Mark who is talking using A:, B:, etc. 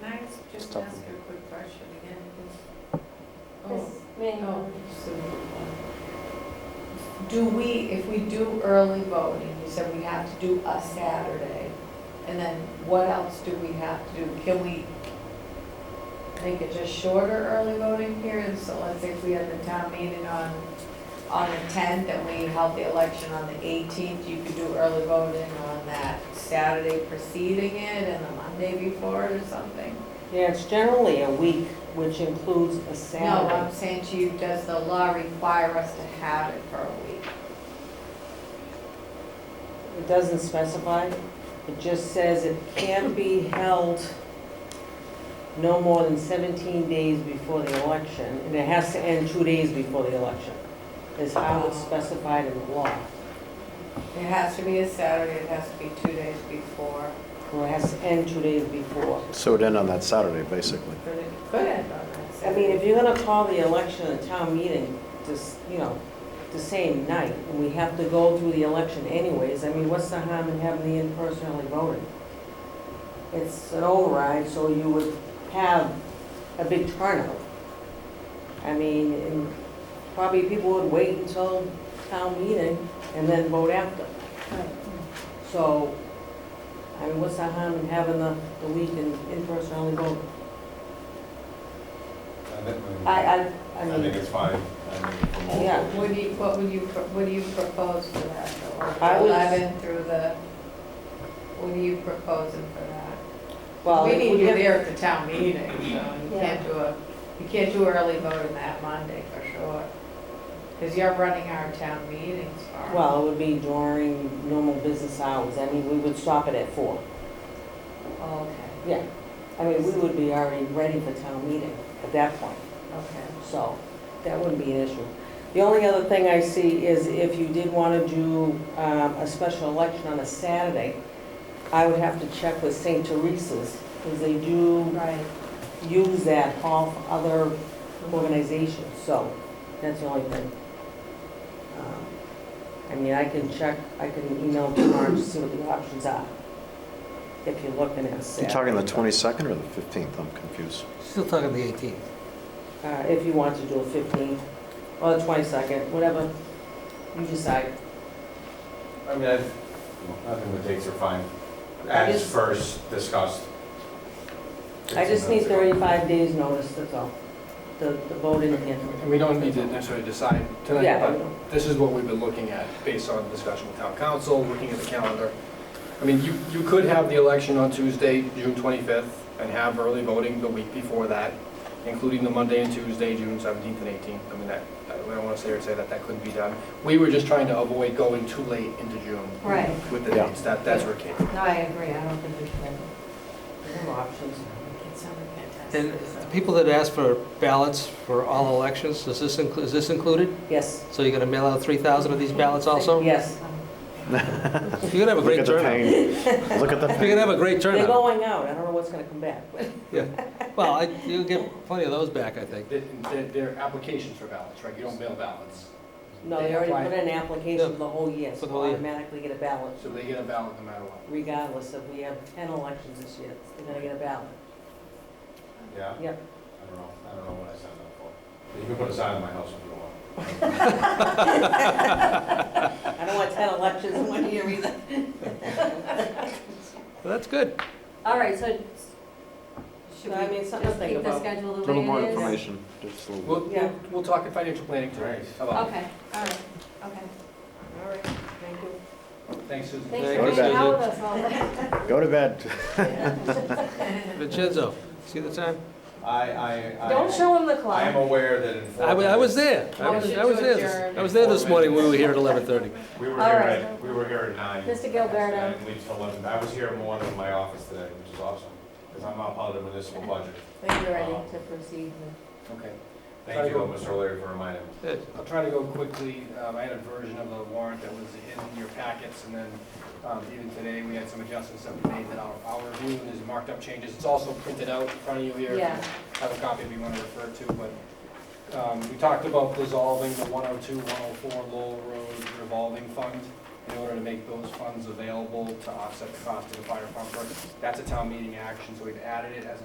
A: It's
B: Just ask
A: tough.
B: her a quick question again.
C: This
B: Oh,
C: may-
B: oh, so- Do we, if we do early voting, you said we have to do a Saturday, and then what else do we have to do? Can we make it just shorter early voting period? So let's say if we had the town meeting on, on the tenth, and we held the election on the eighteenth, you could do early voting on that Saturday preceding it and the Monday before it or something?
A: Yeah, it's generally a week, which includes a
B: No,
A: Saturday.
B: I'm saying to you, does the law require us to have it for a week?
A: It doesn't specify, it just says it can be held no more than 17 days before the election, and it has to end two days before the election, is how
B: Oh.
A: it's specified in the law.
B: It has to be a Saturday, it has to be two days before,
A: Or it has to end two days before.
D: So it'd end on that Saturday, basically.
B: but it could end on that
A: I
B: Saturday.
A: mean, if you're gonna call the election a town meeting, just, you know, the same night, and we have to go through the election anyways, I mean, what's the harm in having the in-person early voting? It's an override, so you would have a big turnout. I mean, and probably people would wait until town meeting and then vote after. So, I mean, what's the harm in having the, the week in, in-person early voting?
E: I think we-
A: I, I, I
E: I think
A: mean,
E: it's fine. I mean, for most-
A: yeah.
B: Would you, what would you, pro- what do you propose for that,
A: I
B: the
A: would-
B: eleven through the, what are you proposing for that?
A: Well,
B: We
A: if
B: need
A: we
B: you
A: have,
B: there at the town meeting, so you
A: Yeah.
B: can't do a, you can't do early voting that Monday for sure. Because you're running our town meetings for.
A: well, it would be during normal business hours. I mean, we would stop it at four.
B: Okay,
A: Yeah. I mean, we would be already ready for town meeting at that point,
B: okay.
A: so that wouldn't be an issue. The only other thing I see is if you did want to do um, a special election on a Saturday, I would have to check with St. Teresa's, because they do
B: Right.
A: use that hall for other organizations, so that's the only thing. Um, I mean, I can check, I can email tomorrow to see what the options are, if you're looking at
D: You
A: Saturday.
D: talking the 22nd or the 15th? I'm confused.
F: Still talking the 18th.
A: Uh, If you want to do a 15, or the 22nd, whatever you decide.
E: I mean, I, I think the dates are fine, as
A: just-
E: first discussed.
A: I just need 35 days' notice, that's all, the the voting in.
G: And we don't need to necessarily decide tonight,
A: Yeah,
G: but this is what we've been looking at, based on discussion with town council, looking at the calendar. I mean, you, you could have the election on Tuesday, June 25th, and have early voting the week before that, including the Monday and Tuesday, June 17th and 18th. I mean, that, I don't want to sit here and say that that couldn't be done. We were just trying to avoid going too late into June
B: Right.
G: with the
D: Yeah.
G: dates, that, that's where it came from.
B: No, I agree, I don't think we should.
A: no options.
B: It sounded fantastic.
F: And the people that ask for ballots for all elections, is this, inclu- is this included?
A: Yes,
F: So you're going to mail out 3,000 of these ballots also?
A: yes.
F: You're going to have a
D: Look
F: great
D: at the
F: turnout.
D: pain. Look at the
F: You're
D: pain.
F: going to have a great
A: They're
F: turnout.
A: going out, I don't know what's going to come back.
F: Well, I- you'll get plenty of those back, I think.
G: They're, they're applications for ballots, right? You don't mail ballots.
A: No, they already put in an application for the whole year,
F: For
A: so
F: the whole
A: they'll
F: year.
A: automatically get a ballot
G: So they get a ballot no matter what.
A: regardless if we have 10 elections this year, they're gonna get a ballot.
E: Yeah?
A: Yep.
E: I don't know, I don't know what I signed up for. You can put a sign on my house if you want.
A: I don't want 10 elections in one year either.
F: Well, that's good.
A: All right, so
C: Should
A: I
C: we
A: mean,
C: just
A: something to think
C: keep the
A: about.
C: schedule
D: A
C: the
D: little more
C: way it is?
D: information, just a little.
G: We'll,
A: Yeah.
G: we'll- we'll talk at financial planning tonight. How about
C: Okay, all right, okay.
A: All right, thank you.
G: it? Thanks, Susan.
C: Thanks
D: Go
C: for
D: to
C: hanging
D: bed.
C: out with us all night.
D: Go to bed.
F: Vincenzo, see the time?
E: I, I, I.
C: Don't show him the clock.
E: I am aware that in four
F: I wa- I was
E: minutes-
F: there. I was I was
B: Motion to
F: there. this-
B: adjourn.
F: I was there this morning when we were here at 11:30.
E: We were here
C: All right.
E: at, we were here at nine.
C: Mr. Gilberto.
E: And leaves till eleven. I was here more than my office today, which is awesome, because I'm not part of the municipal budget.
C: I think you're ready to proceed.
G: Okay.
E: Thank you, Mr. O'Leary, for reminding me.
F: Good.
G: I'll try to go quickly. Um, I had a version of the warrant that was in your packets, and then um, even today, we had some adjustments that we made that I'll I'll review, and there's marked up changes. It's also printed out in front of you here. if you
C: Yeah.
G: Have a copy if you want to refer to, but um, we talked about dissolving the 102, 104 Lowell Road revolving fund in order to make those funds available to offset the cost of the fire pumper. That's a town meeting action, so we've added it as an